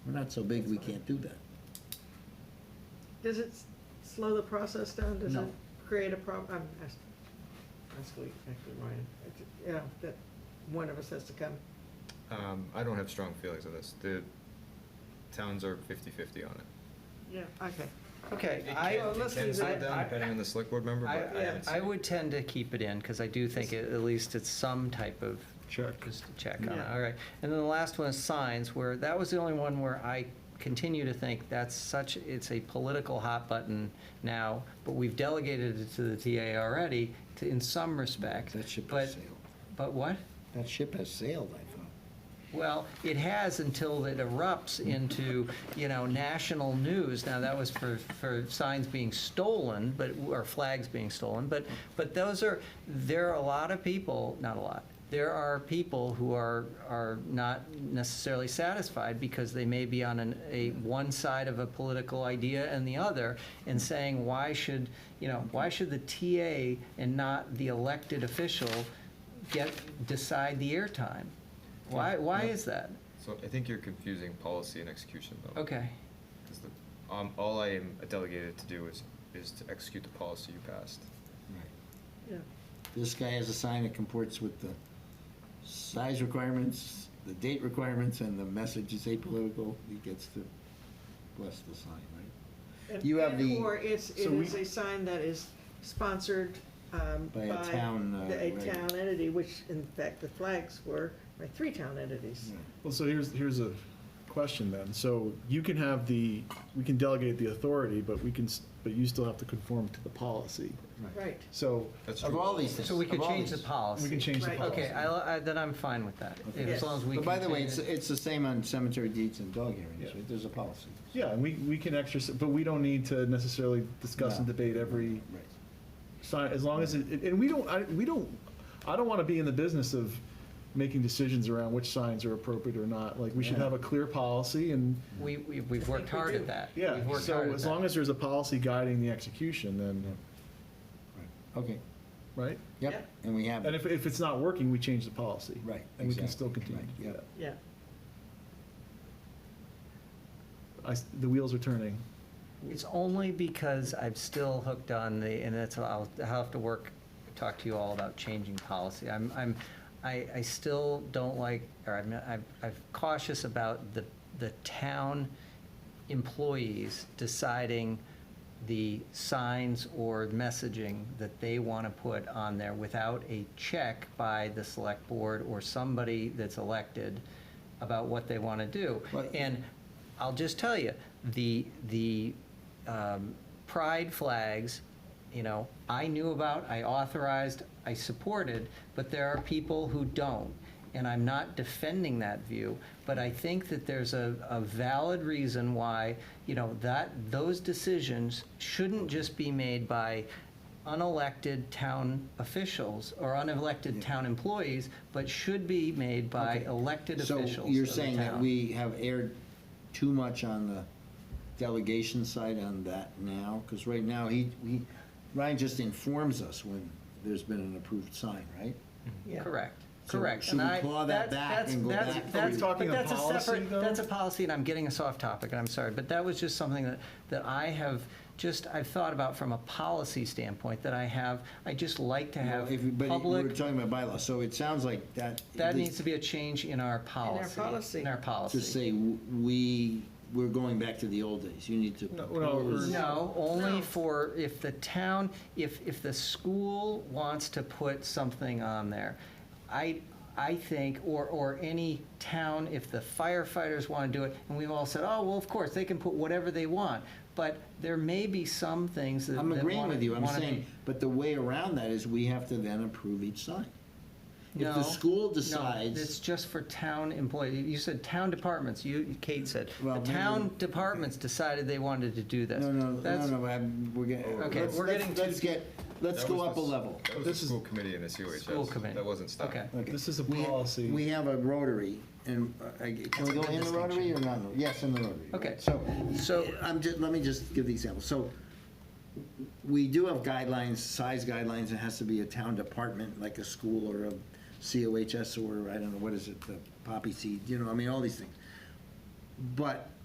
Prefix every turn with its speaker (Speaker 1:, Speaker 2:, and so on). Speaker 1: We're not so big, we can't do that.
Speaker 2: Does it s- slow the process down? Does
Speaker 1: No.
Speaker 2: it create a problem? I'm asking, actually, actually, Ryan, It's- yeah, that one of us has to come.
Speaker 3: Um, I don't have strong feelings on this. The towns are 50/50 on it.
Speaker 2: Yeah, okay.
Speaker 4: Okay,
Speaker 2: I-
Speaker 4: I,
Speaker 2: Well, let's
Speaker 3: It can
Speaker 2: leave
Speaker 3: slow
Speaker 2: it.
Speaker 3: down depending on the select board member, but
Speaker 4: I,
Speaker 3: I haven't
Speaker 4: I
Speaker 3: seen it.
Speaker 4: would tend to keep it in, because I do think it- at least it's some type of. Check. Just a check on it,
Speaker 2: Yeah.
Speaker 4: all right. And then the last one is signs, where, that was the only one where I continue to think that's such, it's a political hot button now, but we've delegated it to the TA already, to, in some respect.
Speaker 1: That ship
Speaker 4: but-
Speaker 1: has sailed.
Speaker 4: But what?
Speaker 1: That ship has sailed, I thought.
Speaker 4: Well, it has until it erupts into, you know, national news. Now, that was for, for signs being stolen, but, or flags being stolen, but, but those are, there are a lot of people, not a lot, there are people who are, are not necessarily satisfied because they may be on an, a, one side of a political idea and the other, and saying, why should, you know, why should the TA and not the elected official get, decide the airtime? Why, why is that?
Speaker 3: So I think you're confusing policy and execution, though.
Speaker 4: Okay,
Speaker 3: 'Cause the- um, all I am delegated to do is, is to execute the policy you passed.
Speaker 1: Right.
Speaker 2: Yeah,
Speaker 1: This guy has a sign that comports with the size requirements, the date requirements, and the message is apolitical. He gets to bless the sign, right?
Speaker 2: And-
Speaker 1: You have
Speaker 2: and-
Speaker 1: the-
Speaker 2: Or it's, it
Speaker 1: so
Speaker 2: is
Speaker 1: we-
Speaker 2: a sign that is sponsored um, by.
Speaker 1: By a town, uh,
Speaker 2: the- A
Speaker 1: right.
Speaker 2: town entity, which in fact the flags were by three town entities.
Speaker 5: Well, so here's, here's a question then. So you can have the, we can delegate the authority, but we can, s- but you still have to conform to the policy.
Speaker 2: Right.
Speaker 5: So
Speaker 3: That's
Speaker 1: Of
Speaker 3: true.
Speaker 1: all these things.
Speaker 4: so we could
Speaker 1: of all
Speaker 4: change the
Speaker 1: these.
Speaker 4: policy.
Speaker 5: we can change the
Speaker 2: Right.
Speaker 5: policy.
Speaker 4: Okay, I, I- then I'm fine with that,
Speaker 1: Okay.
Speaker 4: as long as we.
Speaker 1: But by the way,
Speaker 4: continue-
Speaker 1: it's, it's the same on cemetery deeds and dog hearings,
Speaker 5: Yeah.
Speaker 1: right? There's a policy.
Speaker 5: Yeah, and we, we can exercise, but we don't need to necessarily discuss and
Speaker 1: No.
Speaker 5: debate every
Speaker 1: Right.
Speaker 5: sign, as long as it, and we don't, I, we don't, I don't want to be in the business of making decisions around which signs are appropriate or not. Like, we should
Speaker 1: Yeah.
Speaker 5: have a clear policy and,
Speaker 4: We, we- we've worked
Speaker 2: we
Speaker 4: hard
Speaker 2: do.
Speaker 4: at that. We've
Speaker 5: yeah,
Speaker 4: worked hard
Speaker 5: so
Speaker 4: at
Speaker 5: as
Speaker 4: that.
Speaker 5: long as there's a policy guiding the execution, then,
Speaker 1: Right. Okay,
Speaker 5: right?
Speaker 2: Yeah.
Speaker 1: yep, and we have. it.
Speaker 5: And if, if it's not working, we change the policy.
Speaker 1: Right,
Speaker 5: And we can
Speaker 1: exactly,
Speaker 5: still continue
Speaker 1: right,
Speaker 5: to do
Speaker 1: yeah.
Speaker 5: that.
Speaker 2: Yeah.
Speaker 5: I s the wheels are turning.
Speaker 4: It's only because I'm still hooked on the, and that's, I'll, I'll have to work, talk to you all about changing policy. I'm, I'm, I, I still don't like, or I'm, I'm I'm cautious about the, the town employees deciding the signs or messaging that they want to put on there without a check by the select board or somebody that's elected about what they want to do.
Speaker 1: Right.
Speaker 4: And I'll just tell you, the, the um, pride flags, you know, I knew about, I authorized, I supported, but there are people who don't. And I'm not defending that view, but I think that there's a, a valid reason why, you know, that, those decisions shouldn't just be made by unelected town officials or unelected town employees, but should be made
Speaker 1: Mm.
Speaker 4: by
Speaker 1: Okay.
Speaker 4: elected officials
Speaker 1: So you're
Speaker 4: of the
Speaker 1: saying that
Speaker 4: town.
Speaker 1: we have aired too much on the delegation side on that now? Because right now, he, he, Ryan just informs us when there's been an approved sign, right?
Speaker 2: Yeah.
Speaker 4: Correct,
Speaker 1: So
Speaker 4: correct.
Speaker 1: should
Speaker 4: And
Speaker 1: we
Speaker 4: I-
Speaker 1: claw that
Speaker 4: that's-
Speaker 1: back
Speaker 4: that's-
Speaker 1: and go
Speaker 4: that's-
Speaker 1: back to-
Speaker 4: that's-
Speaker 5: Are we talking
Speaker 4: but
Speaker 5: a
Speaker 4: that's a
Speaker 5: policy,
Speaker 4: separate-
Speaker 5: though?
Speaker 4: That's a policy, and I'm getting us off topic, and I'm sorry, but that was just something that, that I have just, I've thought about from a policy standpoint, that I have, I just like to have
Speaker 1: If- But we we're
Speaker 4: public,
Speaker 1: talking about bylaw, so it sounds like that.
Speaker 4: that
Speaker 1: at least
Speaker 4: needs to be a change in our policy.
Speaker 2: policy.
Speaker 4: In our policy.
Speaker 1: To say, w- we, we're going back to the old days, you need to
Speaker 5: No, no,
Speaker 1: propose.
Speaker 5: we're-
Speaker 4: No, only
Speaker 2: No.
Speaker 4: for if the town, if, if the school wants to put something on there, I, I think, or, or any town, if the firefighters want to do it, and we've all said, oh, well, of course, they can put whatever they want, but there may be some things that.
Speaker 1: I'm
Speaker 4: that
Speaker 1: agreeing
Speaker 4: wanna-
Speaker 1: with you, I'm
Speaker 4: wanna be-
Speaker 1: saying, but the way around that is we have to then approve each sign. If
Speaker 4: No,
Speaker 1: the school
Speaker 4: no, It's
Speaker 1: decides,
Speaker 4: just for town employees, you said town departments, you, Kate said,
Speaker 1: Well,
Speaker 4: the
Speaker 1: maybe-
Speaker 4: town departments decided they wanted to do this.
Speaker 1: no, no, no,
Speaker 4: That's-
Speaker 1: no, I'm- we're getting,
Speaker 4: Okay,
Speaker 1: let's,
Speaker 4: we're
Speaker 1: let's-
Speaker 4: getting
Speaker 1: let's get, let's
Speaker 3: That
Speaker 1: go
Speaker 3: was
Speaker 1: up a
Speaker 3: the s-
Speaker 1: level.
Speaker 3: That was the
Speaker 5: This is-
Speaker 3: school committee in the COHS.
Speaker 4: School committee.
Speaker 3: That wasn't stopped.
Speaker 4: Okay.
Speaker 1: Okay.
Speaker 5: This is a
Speaker 1: We-
Speaker 5: policy.
Speaker 1: We have a rotary, and uh, I- can we go in the rotary or not? Yes, in the rotary. right?
Speaker 4: Okay.
Speaker 1: So, so
Speaker 4: So-
Speaker 1: I'm just, let me just give the example. So we do have guidelines, size guidelines, it has to be a town department, like a school or a COHS or, I don't know, what is it, the poppy seed, you know, I mean, all these things. But